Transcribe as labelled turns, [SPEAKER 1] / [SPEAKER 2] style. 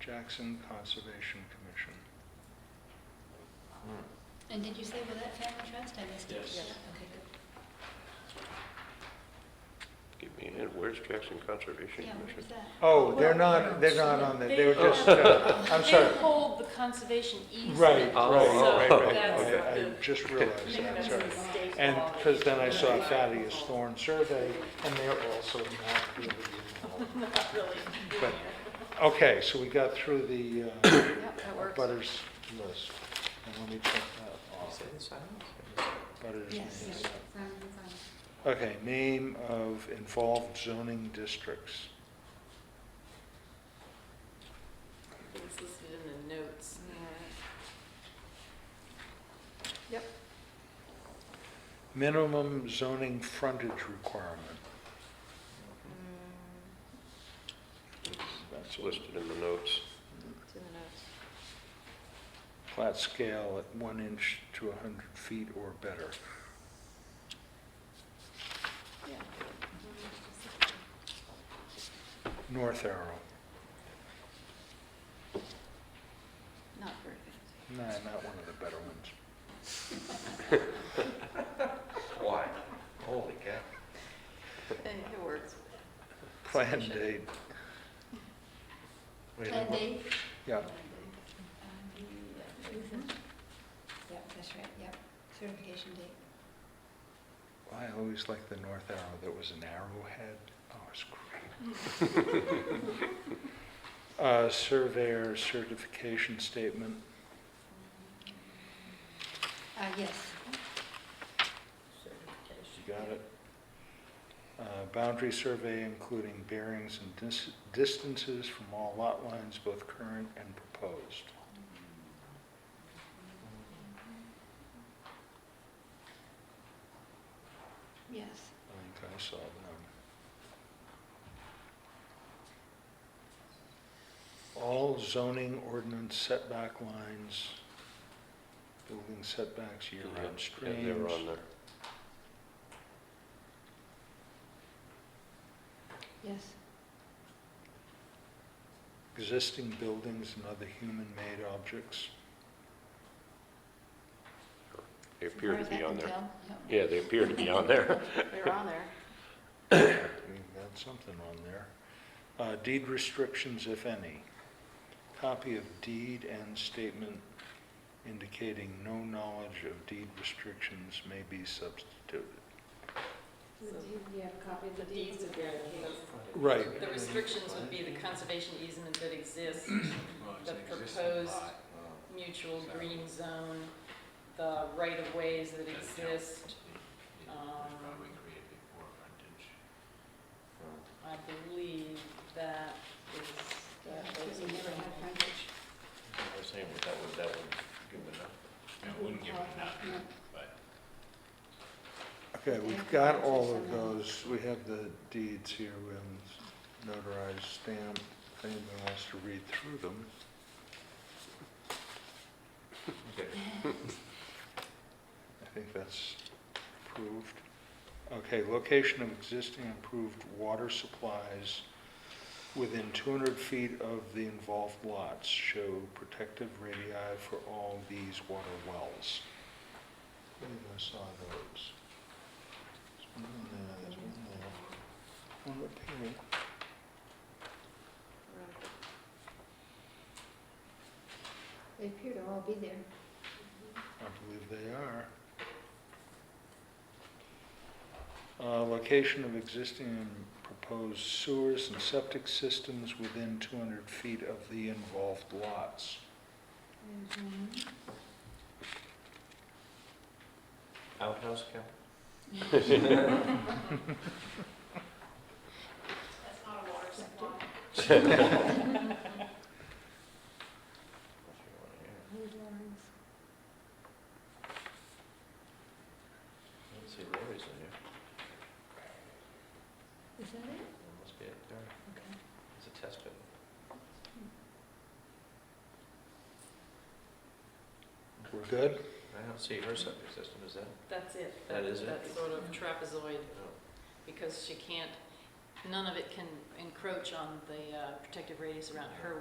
[SPEAKER 1] Jackson Conservation Commission.
[SPEAKER 2] And did you say with that family trust? I missed it.
[SPEAKER 3] Yes.
[SPEAKER 2] Yeah,
[SPEAKER 3] Yes.
[SPEAKER 2] Okay, good.
[SPEAKER 4] Give me a hint, where's Jackson Conservation
[SPEAKER 2] Yeah, where
[SPEAKER 4] Commission?
[SPEAKER 2] is that?
[SPEAKER 1] Oh, they're
[SPEAKER 5] Well,
[SPEAKER 1] not, they're not on that, they were
[SPEAKER 5] they-
[SPEAKER 1] just, uh, I'm sorry.
[SPEAKER 5] They hold the conservation easement.
[SPEAKER 1] Right, Uh,
[SPEAKER 4] Oh,
[SPEAKER 1] right,
[SPEAKER 4] right,
[SPEAKER 5] So
[SPEAKER 4] right,
[SPEAKER 5] that's
[SPEAKER 4] okay.
[SPEAKER 1] I
[SPEAKER 5] the-
[SPEAKER 1] I just realized that,
[SPEAKER 5] that's
[SPEAKER 1] sorry.
[SPEAKER 5] the state
[SPEAKER 1] And,
[SPEAKER 5] law.
[SPEAKER 1] because then I saw Thaddeus Thorne survey, and they're also not really involved.
[SPEAKER 5] Not really.
[SPEAKER 1] But, okay, so we got through the uh,
[SPEAKER 5] Yep, that works.
[SPEAKER 1] butters list, and let me check that off. Butters
[SPEAKER 2] Yes,
[SPEAKER 1] means-
[SPEAKER 2] yeah, fine, fine.
[SPEAKER 1] Okay, name of involved zoning districts.
[SPEAKER 5] It's listed in the notes. Yep.
[SPEAKER 1] Minimum zoning frontage requirement. That's
[SPEAKER 4] It's
[SPEAKER 1] listed.
[SPEAKER 4] listed in the notes.
[SPEAKER 5] It's in the notes.
[SPEAKER 1] Flat scale at one inch to 100 feet or better.
[SPEAKER 5] Yeah.
[SPEAKER 1] North arrow.
[SPEAKER 5] Not very good.
[SPEAKER 1] Nah, not one of the better ones.
[SPEAKER 4] Why? Holy cow.
[SPEAKER 5] Hey, It works.
[SPEAKER 1] Plan date,
[SPEAKER 2] Plan D?
[SPEAKER 1] yeah.
[SPEAKER 2] Um, yeah, Susan. Yep, that's right, yep. Certification date.
[SPEAKER 1] I always liked the north arrow that was an arrowhead. Oh, it's great. Uh, Surveyor certification statement.
[SPEAKER 2] Uh, yes.
[SPEAKER 1] You got it. Uh, Boundary survey including bearings and dis- distances from all lot lines, both current and proposed.
[SPEAKER 2] Yes.
[SPEAKER 1] I think I saw them. All zoning ordinance setback lines, building setbacks, year-round
[SPEAKER 4] Yeah, they were
[SPEAKER 1] streams.
[SPEAKER 4] on there.
[SPEAKER 2] Yes.
[SPEAKER 1] existing buildings and other human-made objects.
[SPEAKER 4] They appear to be on there.
[SPEAKER 2] Yeah.
[SPEAKER 4] Yeah, they appear to be on there.
[SPEAKER 5] They're on there.
[SPEAKER 1] We've got something on there. Uh, Deed restrictions, if any. Copy of deed and statement indicating no knowledge of deed restrictions may be substituted.
[SPEAKER 2] you have a copy
[SPEAKER 5] The deeds of the,
[SPEAKER 1] Right.
[SPEAKER 5] the restrictions would be the conservation easement that exists, the proposed mutual green zone, the right-of-ways that exist. Um, I believe that is, that those are some-
[SPEAKER 6] I was saying, but that would, that would give it up.
[SPEAKER 2] wouldn't give it enough.
[SPEAKER 1] Okay, we've got all of those. We have the deeds here, we have them notarized, stamped, if anyone wants to read through them. I think that's approved. Okay, location of existing improved water supplies within 200 feet of the involved lots. Show protective radii for all these water wells. I believe I saw those. There's one in there, there's one there, one up here.
[SPEAKER 2] They appear to all be there.
[SPEAKER 1] I believe they are. Uh, Location of existing and proposed sewers and septic systems within 200 feet of the involved lots.
[SPEAKER 2] There's one.
[SPEAKER 6] Outhouse count?
[SPEAKER 2] Who's Lawrence?
[SPEAKER 6] Let's see, Rory's in there.
[SPEAKER 2] Is that it?
[SPEAKER 6] There must be it there.
[SPEAKER 2] Okay.
[SPEAKER 6] It's a test pit.
[SPEAKER 1] We're good?
[SPEAKER 6] I don't see her septic system, is that?
[SPEAKER 5] That's it.
[SPEAKER 6] That is it?
[SPEAKER 5] That sort of trapezoid,
[SPEAKER 6] No.
[SPEAKER 5] because she can't, none of it can encroach on the uh, protective radius around her